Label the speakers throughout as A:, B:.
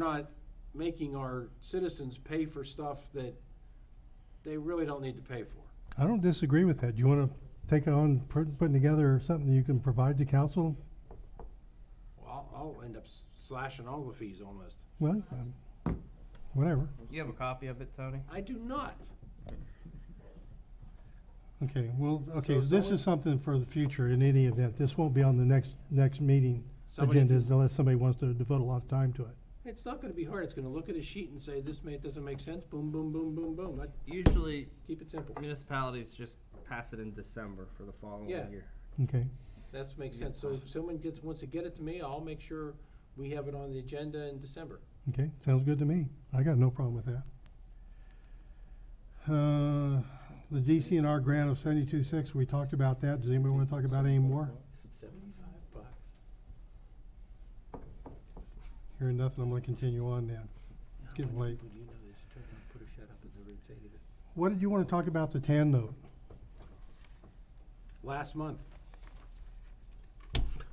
A: not making our citizens pay for stuff that they really don't need to pay for.
B: I don't disagree with that. Do you wanna take it on, pr- putting together something that you can provide to council?
A: Well, I'll I'll end up s- slashing all the fees almost.
B: Well, um, whatever.
C: You have a copy of it, Tony?
A: I do not.
B: Okay, well, okay,
A: So
B: this
A: someone-
B: is something for the future in any event. This won't be on the next, next meeting
A: Somebody
B: agendas
A: can-
B: unless somebody wants to devote a lot of time to it.
A: It's not gonna be hard. It's gonna look at a sheet and say, this ma- doesn't make sense, boom, boom, boom, boom, boom. That-
C: Usually
A: Keep it simple.
C: municipalities just pass it in December for the following
A: Yeah.
C: year.
B: Okay,
A: That's makes sense. So if someone gets, wants to get it to me, I'll make sure we have it on the agenda in December.
B: okay, sounds good to me. I got no problem with that. Uh, the DCNR grant of seventy-two six, we talked about that. Does anybody wanna talk about any more?
A: Seventy-five bucks.
B: Hearing nothing, I'm gonna continue on then.
A: It's
B: getting late.
A: Do you know this? Turn around, put a shut up and never say anything.
B: What did you wanna talk about the TAN note?
A: last month.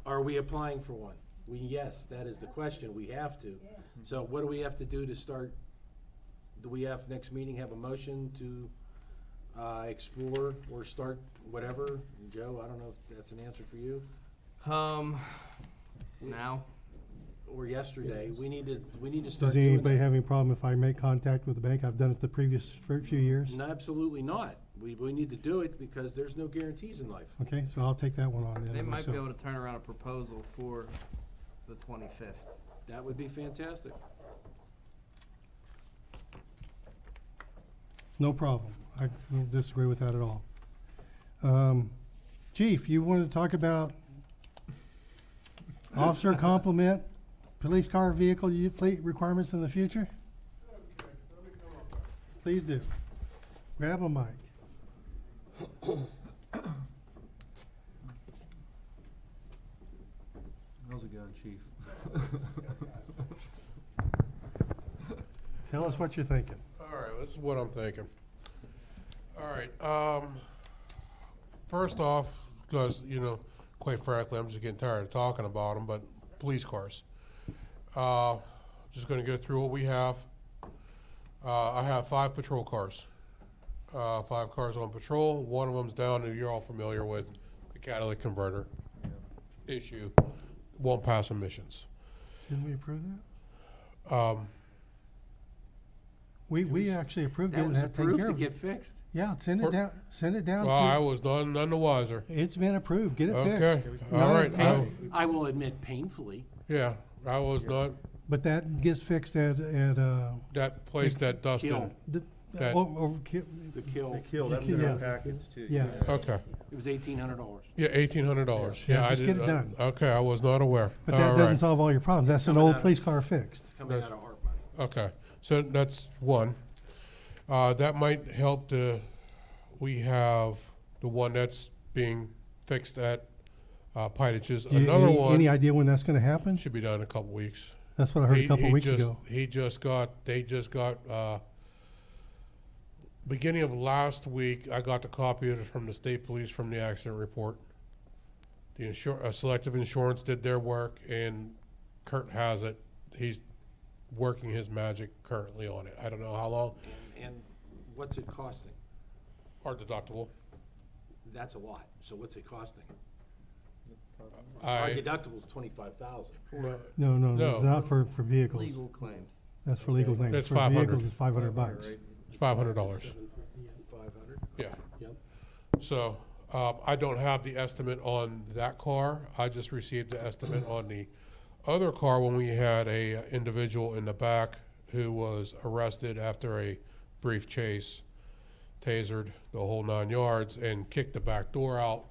A: Are we applying for one? We, yes, that is the question, we have to. So what do we have to do to start, do we have, next meeting, have a motion to uh, explore or start whatever? Joe, I don't know if that's an answer for you,
C: Um, now,
A: or yesterday, we need to, we need to start
B: Does
A: doing
B: anybody
A: that.
B: have any problem if I make contact with the bank? I've done it the previous fir- few years.
A: Uh, No, absolutely not. We, we need to do it because there's no guarantees in life.
B: Okay, so I'll take that one on then.
C: they might be
B: myself.
C: able to turn around a proposal for the twenty-fifth.
A: That would be fantastic.
B: No problem. I don't disagree with that at all. Um, Chief, you wanted to talk about officer complement, police car vehicle u- fleet requirements in the future? Please do. Grab a mic.
D: How's it going, chief?
B: Tell us what you're thinking.
E: All right, this is what I'm thinking. All right, um, first off, because, you know, quite frankly, I'm just getting tired of talking about them, but police cars. Uh, just gonna go through what we have. Uh, I have five patrol cars. Uh, five cars on patrol, one of them's down, and you're all familiar with the catalytic converter issue, won't pass emissions.
B: Didn't we approve that?
E: Um,
B: We, we actually approved
A: That
B: getting
A: was
B: that taken
A: approved
B: care
A: to
B: of.
A: get fixed.
B: Yeah, send it
E: For-
B: down, send it down
E: well, I
B: to,
E: was none, none the wiser.
B: it's been approved, get it
E: Okay,
B: fixed.
E: all
B: Not-
E: right,
B: not-
E: I-
A: I will admit painfully.
E: Yeah, I was not,
B: But that gets fixed at, at, uh,
E: that place that Dustin,
A: Kill.
B: the,
E: That-
B: oh, oh, ki-
A: The kill,
D: The kill, that's in our packets too.
B: yeah,
E: okay,
A: it was eighteen hundred dollars.
E: yeah, eighteen hundred dollars,
B: Yeah,
E: yeah, I
B: just get
E: did,
B: it done.
E: okay, I was not aware,
B: but
E: all
B: that doesn't
E: right,
B: solve all your problems, that's an
A: Coming
B: old
A: out.
B: police car fixed.
A: It's coming out of ARP money.
E: okay, so that's one. Uh, that might help the, we have the one that's being fixed at, uh, Pitages,
B: Do you-
E: another
B: any- Any
E: one
B: idea when that's gonna happen?
E: should be done in a couple weeks.
B: That's what I heard a
E: He-
B: couple
E: he
B: weeks
E: just-
B: ago.
E: He just got, they just got, uh, beginning of last week, I got the copy of it from the state police from the accident report. The insur, uh, Selective Insurance did their work and Kurt has it. He's working his magic currently on it. I don't know how long,
A: And what's it costing?
E: our deductible.
A: That's a lot, so what's it costing? Our
E: I,
A: deductible's twenty-five thousand.
E: no,
B: No, no, no,
E: No.
B: not for, for vehicles,
C: Legal claims.
B: that's for legal
D: Okay.
B: things.
E: That's
B: For
E: 500.
B: vehicles, it's five hundred bucks.
E: it's five hundred dollars.
A: Five hundred?
E: Yeah.
A: Yep.
E: So, um, I don't have the estimate on that car. I just received the estimate on the other car when we had a uh, individual in the back who was arrested after a brief chase, tasered the whole nine yards and kicked the back door out.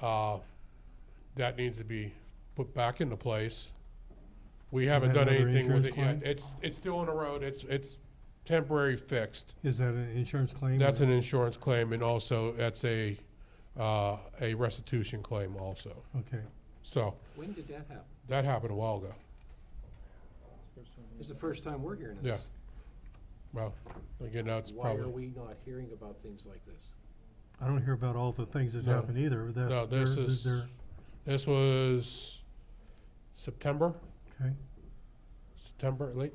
E: Uh, that needs to be put back into place. We haven't
B: that
E: done
B: another
E: anything with
B: insurance
E: it yet.
B: claim?
E: It's, it's still on the road. It's, it's temporary fixed.
B: Is that an insurance claim?
E: That's
B: or-
E: an insurance claim, and also that's a, uh, a restitution claim also.
B: Okay,
E: So,
A: When did that happen?
E: that happened a while ago.
A: It's the first time we're hearing
E: Yeah.
A: this.
E: Well, again, that's
A: Why are
E: probably,
A: we not hearing about things like this?
B: I don't hear about all the things that
E: No.
B: happen either,
E: no,
B: that's,
E: this
B: they're,
E: is,
B: they're,
E: this was September,
B: okay,
E: September, late